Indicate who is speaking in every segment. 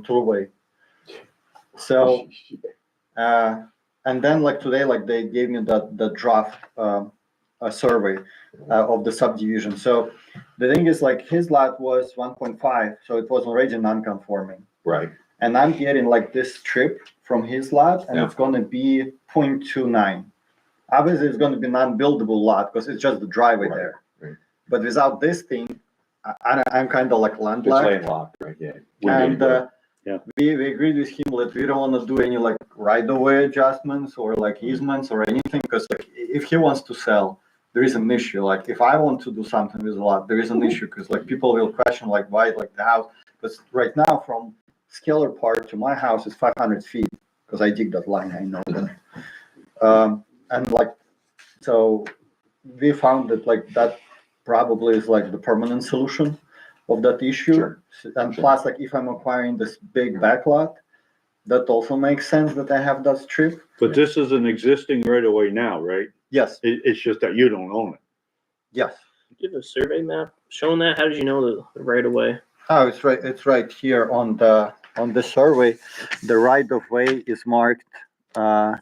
Speaker 1: truly. So uh, and then like today, like they gave me the the draft um, a survey uh, of the subdivision. So the thing is, like his lot was 1.5, so it was already non-conforming,
Speaker 2: Right,
Speaker 1: and I'm getting like this strip from his lot, and
Speaker 2: Yeah.
Speaker 1: it's gonna be 0.29. Obviously, it's gonna be non-buildable lot because it's just the driveway
Speaker 2: Right,
Speaker 1: there.
Speaker 2: right.
Speaker 1: But without this thing, I, I, I'm kind of like
Speaker 2: it's
Speaker 1: landlocked.
Speaker 2: landlocked, right, yeah. Wouldn't
Speaker 1: And,
Speaker 2: be-
Speaker 1: uh,
Speaker 3: Yeah.
Speaker 1: we, we agreed with him that we don't wanna do any like right-of-way adjustments or like easements or anything, because like, i- if he wants to sell, there is an issue, like, if I want to do something with a lot, there is an issue, because like, people will question like, why, like, the house, because right now, from Scalar Park to my house is five hundred feet, because I dig that line, I know that. Um, and like, so, we found that like, that probably is like the permanent solution of that issue.
Speaker 2: Sure.
Speaker 1: S- And
Speaker 2: Sure.
Speaker 1: plus, like if I'm acquiring this big backlot, that also makes sense that I have that strip.
Speaker 3: But this is an existing right away now, right?
Speaker 1: Yes,
Speaker 3: It, it's just that you don't own it.
Speaker 1: yes.
Speaker 4: Do you have a survey map showing that? How did you know the, the right of way?
Speaker 1: Oh, it's right, it's right here on the, on the survey. The right of way is marked, uh,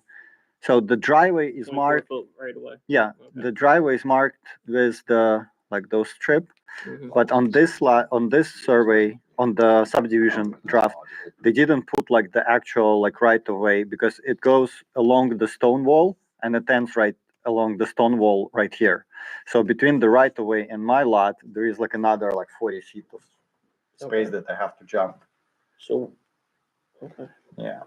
Speaker 1: so the driveway is
Speaker 4: 24
Speaker 1: marked,
Speaker 4: foot Right away.
Speaker 1: yeah, the driveway is marked with the, like those strip.
Speaker 4: Mhm.
Speaker 1: But on this li, on this survey, on the subdivision draft, they didn't put like the actual like right of way because it goes along the stone wall and it ends right along the stone wall right here. So between the right of way and my lot, there is like another like 40 feet of space that I have to jump.
Speaker 4: So, okay.
Speaker 1: Yeah.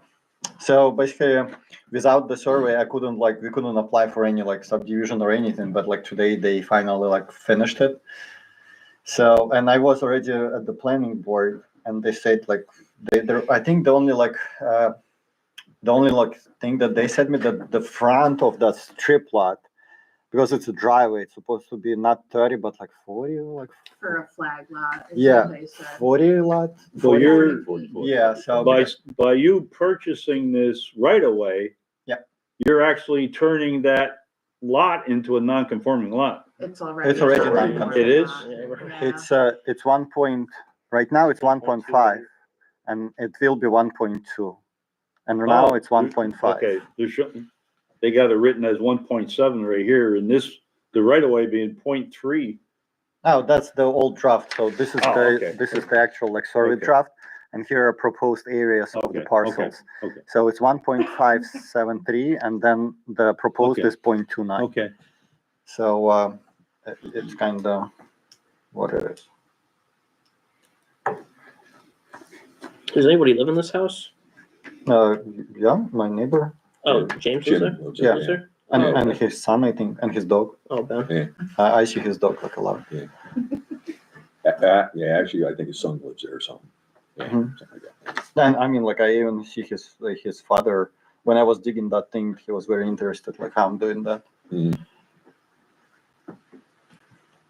Speaker 1: So basically, without the survey, I couldn't like we couldn't apply for any like subdivision or anything. But like today, they finally like finished it. So and I was already at the planning board, and they said like they they're, I think the only like uh, the only like thing that they said me that the front of that strip lot because it's a driveway, it's supposed to be not thirty but like forty or like
Speaker 5: for a flag lot. is
Speaker 1: Yeah.
Speaker 5: what they said.
Speaker 1: forty lot.
Speaker 3: So you're,
Speaker 1: Yeah. So
Speaker 3: by, by you purchasing this right away.
Speaker 1: Yeah.
Speaker 3: You're actually turning that lot into a non-conforming lot.
Speaker 5: It's already.
Speaker 1: It's already
Speaker 2: done.
Speaker 3: It is?
Speaker 4: Yeah, right.
Speaker 1: It's uh, it's one point, right now it's one point five, and it will be one point two. And now
Speaker 3: Oh,
Speaker 1: it's one point five.
Speaker 3: Okay, there should, they got it written as one point seven right here and this, the right away being point three.
Speaker 1: Now, that's the old draft, so this is
Speaker 3: Oh,
Speaker 1: the,
Speaker 3: okay.
Speaker 1: this is the actual like survey
Speaker 3: Okay.
Speaker 1: draft, and here are proposed areas of the
Speaker 3: Okay, okay,
Speaker 1: parcels.
Speaker 3: okay.
Speaker 1: So it's one point five seven three, and then the proposed
Speaker 3: Okay.
Speaker 1: is point two nine,
Speaker 3: Okay,
Speaker 1: so, um, it- it's kind of what it is.
Speaker 4: Does anybody live in this house?
Speaker 1: Uh, yeah, my neighbor,
Speaker 4: Oh, James is there?
Speaker 1: Yeah.
Speaker 4: Is there?
Speaker 1: and,
Speaker 4: Oh,
Speaker 1: and his son, I think, and his dog,
Speaker 4: oh, Ben.
Speaker 1: I, I see his dog like a lot.
Speaker 2: Uh, yeah, actually, I think his son lives there or something. Yeah,
Speaker 1: Mhm.
Speaker 2: something like that.
Speaker 1: And I mean, like I even see his like, his father when I was digging that thing. He was very interested, like how I'm doing that, because
Speaker 4: Mm-hmm.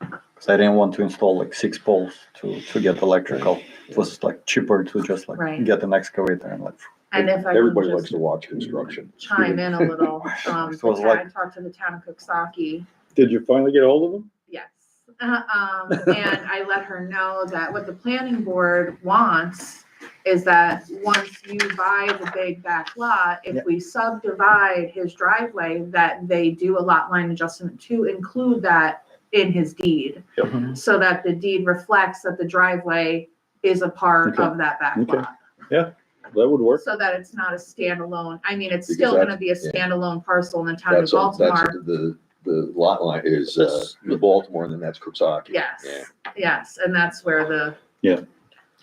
Speaker 2: Mm.
Speaker 1: I didn't want to install like six poles to to get electrical. It was like cheaper to just like
Speaker 5: Right.
Speaker 1: get an excavator and like.
Speaker 5: And if I
Speaker 2: Everybody
Speaker 5: could
Speaker 2: likes
Speaker 5: just
Speaker 2: to watch construction.
Speaker 5: chime in a little, um,
Speaker 1: It
Speaker 5: the
Speaker 1: was
Speaker 5: town-
Speaker 1: like-
Speaker 5: I talked to the town of Cooksaki,
Speaker 3: did you finally get hold of them?
Speaker 5: yes. Um, and I let her know that what the planning board wants is that once you buy the big back lot,
Speaker 1: Yeah.
Speaker 5: if we subdivide his driveway, that they do a lot line adjustment to include that in his deed.
Speaker 1: Yep.
Speaker 5: So that the deed reflects that the driveway is a part
Speaker 3: Okay.
Speaker 5: of that back
Speaker 3: Okay.
Speaker 5: lot.
Speaker 3: That would work.
Speaker 5: So that it's not a standalone, I mean, it's
Speaker 2: Because
Speaker 5: still gonna
Speaker 2: that's-
Speaker 5: be a
Speaker 2: yeah.
Speaker 5: standalone parcel in the town of
Speaker 2: That's, all- that's
Speaker 5: Baltimore,
Speaker 2: the, the lot line is, uh,
Speaker 4: That's-
Speaker 2: the Baltimore and then that's Kutzaki.
Speaker 5: yes,
Speaker 2: Yeah.
Speaker 5: yes, and that's where the,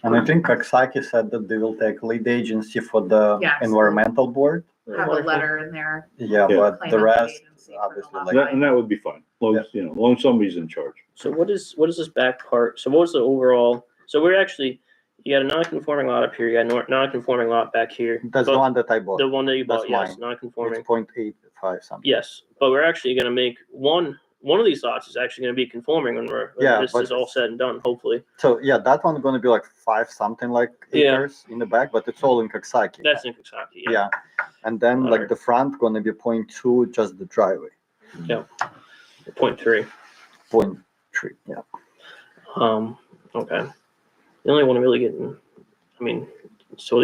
Speaker 1: And I think Kaksaki said that they will take lead agency for the
Speaker 5: Yes.
Speaker 1: environmental board.
Speaker 5: have a letter in there.
Speaker 1: Yeah,
Speaker 3: Yeah.
Speaker 1: but the
Speaker 5: claiming
Speaker 1: rest,
Speaker 5: agency for the
Speaker 1: obviously,
Speaker 5: lot
Speaker 1: like-
Speaker 3: That-
Speaker 5: line.
Speaker 3: And that would be fine, long, as, you know, long as somebody's in charge.
Speaker 4: So what is what is this back part? So what was the overall? So we're actually you got a non-conforming lot up here. You got a nor- non-conforming lot back here.
Speaker 1: that's
Speaker 4: but
Speaker 1: the one that I bought.
Speaker 4: The one that you
Speaker 1: That's
Speaker 4: bought, yes,
Speaker 1: mine.
Speaker 4: non-conforming.
Speaker 1: It's point eight five something.
Speaker 4: Yes, but we're actually going to make one. One of these lots is actually going to be conforming when we're when
Speaker 1: Yeah,
Speaker 4: this
Speaker 1: but-
Speaker 4: is all said and done. Hopefully,
Speaker 1: So yeah, that one gonna be like five something like
Speaker 4: Yeah.
Speaker 1: acres in the back, but it's all in Kaksaki.
Speaker 4: that's in Kentucky.
Speaker 1: Yeah, and then like
Speaker 4: Alright.
Speaker 1: the front gonna be point two, just the driveway,
Speaker 4: Point three.
Speaker 1: point three, yeah.
Speaker 4: Um, okay. The only one really getting, I mean, It's totally